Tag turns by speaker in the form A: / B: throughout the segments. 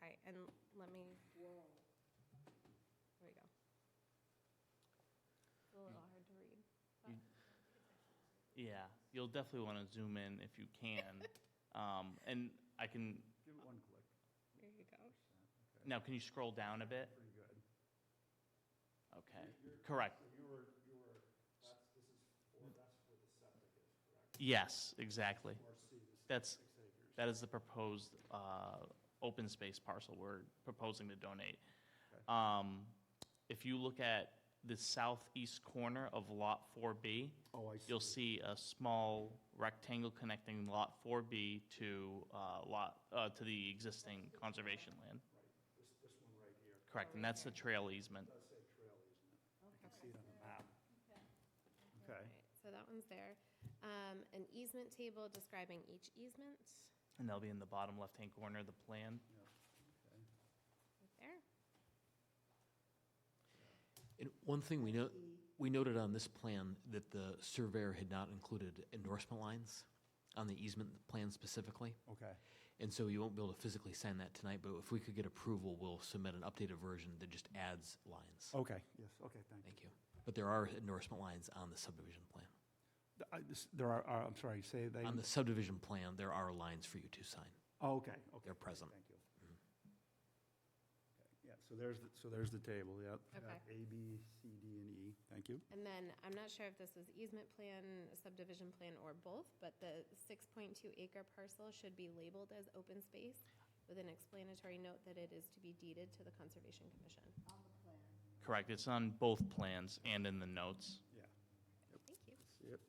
A: Okay, and let me, there we go.
B: It's a little hard to read.
C: You- Yeah, you'll definitely want to zoom in if you can. Um, And I can,
D: Give it one click.
A: There you go.
D: Okay,
C: now, can you scroll down a bit?
D: Pretty good.
C: Okay, correct.
E: So you were, you were, that's, this is, for that's where the septic is, correct?
C: Yes, exactly.
E: Or C, this is
C: That's-
E: six acres.
C: That is the proposed uh, open space parcel we're proposing to donate.
D: Okay.
C: Um, If you look at the southeast corner of Lot 4B,
D: Oh, I
C: you'll see a small rectangle connecting Lot 4B to uh, Lot, uh, to the existing conservation land.
E: Right, this, this one right here,
C: Correct, and that's the trail easement.
E: does say trail easement. I can
A: Okay.
E: see it on the map.
D: Okay,
A: Alright, So that one's there. Um, An easement table describing each easement,
C: And that'll be in the bottom left-hand corner of the plan.
D: yeah, okay.
A: right there.
F: And one thing we know, we noted on this plan that the surveyor had not included endorsement lines on the easement plan specifically.
D: Okay,
F: And so you won't be able to physically sign that tonight, but if we could get approval, we'll submit an updated version that just adds lines.
D: okay, yes, okay, thank you.
F: Thank you. But there are endorsement lines on the subdivision plan.
D: Th- I- this- There are- are, I'm sorry, say they.
F: On the subdivision plan, there are lines for you to sign.
D: Oh, okay, okay.
F: They're present.
D: Thank you. Okay, Yeah, so there's, the- so there's the table, yep.
A: Okay.
D: A, B, C, D, and E, thank you.
A: And then, I'm not sure if this was easement plan, subdivision plan, or both, but the 6.2 acre parcel should be labeled as open space with an explanatory note that it is to be deeded to the Conservation Commission.
C: Correct, it's on both plans and in the notes.
D: Yeah,
A: Thank you.
D: see it?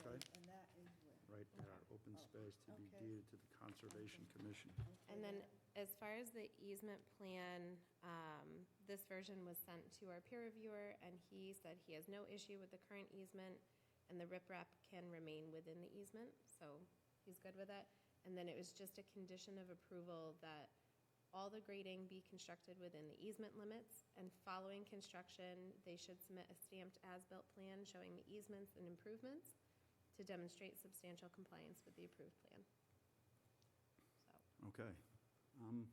D: Okay,
G: Okay, and that is where,
D: right there, open space to be
G: okay.
D: deeded to the Conservation Commission.
A: And then, as far as the easement plan, um, this version was sent to our peer reviewer, and he said he has no issue with the current easement, and the riprap can remain within the easement, so he's good with that. And then it was just a condition of approval that all the grading be constructed within the easement limits, and following construction, they should submit a stamped as-built plan showing the easements and improvements to demonstrate substantial compliance with the approved plan. So.
D: Okay. Um,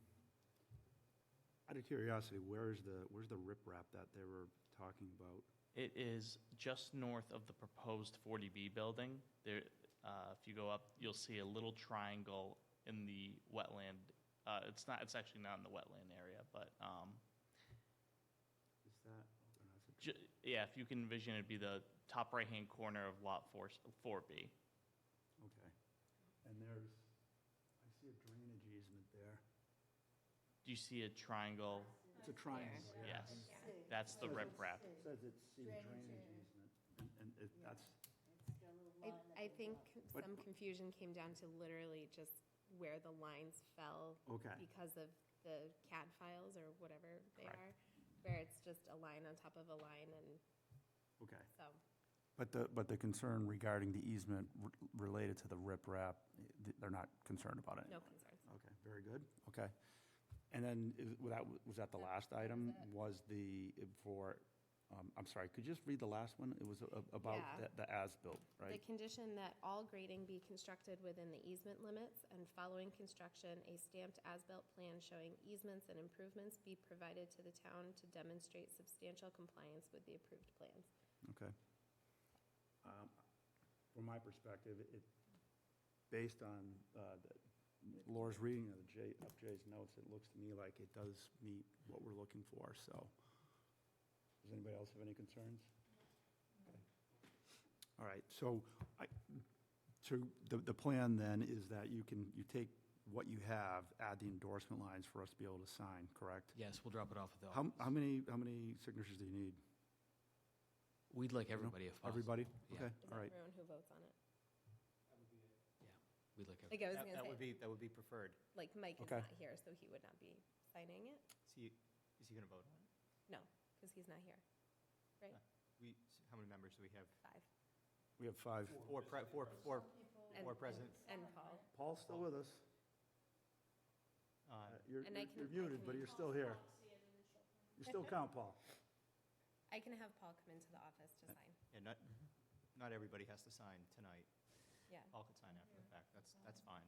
D: Out of curiosity, where is the, where's the riprap that they were talking about?
C: It is just north of the proposed 40B building. There, uh, if you go up, you'll see a little triangle in the wetland. Uh, It's not, it's actually not in the wetland area, but, um,
D: Is that? oh, no, it's a-
C: ju- yeah, if you can envision, it'd be the top right-hand corner of Lot 4, 4B.
D: Okay. And there's, I see a drainage easement there.
C: Do you see a triangle?
D: It's a triangle. yeah.
C: Yes, that's the riprap.
D: It Says it's C drainage
G: Drainage area.
D: easement, and- and it, that's,
G: it's got a little
A: I,
G: line that
A: I
G: goes up.
A: think
D: But-
A: some confusion came down to literally just where the lines fell.
D: Okay.
A: Because of the CAD files or whatever they
C: Correct.
A: are, where it's just a line on top of a line and
D: okay.
A: so.
D: But the, but the concern regarding the easement r- related to the riprap, eh, they're not concerned about it?
A: No concerns.
D: Okay, very good, okay. And then, is- was that, was that the last item, was the, eh, for, um, I'm sorry, could you just read the last one? It was a- a-
A: Yeah.
D: about the- the as-built,
A: The
D: right?
A: condition that all grading be constructed within the easement limits and following construction, a stamped as-built plan showing easements and improvements be provided to the town to demonstrate substantial compliance with the approved plans.
D: Okay. Um, From my perspective, it, based on uh, the- Laura's reading of Jay, of Jay's notes, it looks to me like it does meet what we're looking for, so. Does anybody else have any concerns? Okay. All right, so I, so the, the plan then is that you can, you take what you have, add the endorsement lines for us to be able to sign, correct?
F: Yes, we'll drop it off at the
D: How, how
F: office.
D: many, how many signatures do you need?
F: We'd like everybody if possible.
D: Everybody? Okay,
F: Yeah.
A: Is
D: all
A: that
D: right.
A: everyone who votes on it?
F: Yeah, we'd like everybody.
A: Like I was
H: That-
A: gonna
H: That would
A: say,
H: be, that would be preferred.
A: like Mike is
D: Okay.
A: not here, so he would not be signing it?
H: Is he, is he going to vote on it?
A: No, because he's not here, right?
H: Huh. We, how many members do we have?
A: Five.
D: We have five.
H: Four, pre- four, four,
A: And-
H: four presidents.
A: And Paul.
D: Paul's still with us.
H: Uh,
D: Uh, You're
A: And I
D: you're-
A: can-
D: you're
A: I
D: muted,
A: can-
D: but you're still here. You still count, Paul.
A: I can have Paul come into the office to sign,
H: And not, not everybody has to sign tonight.
A: yeah.
H: All could sign after the fact. That's, that's fine.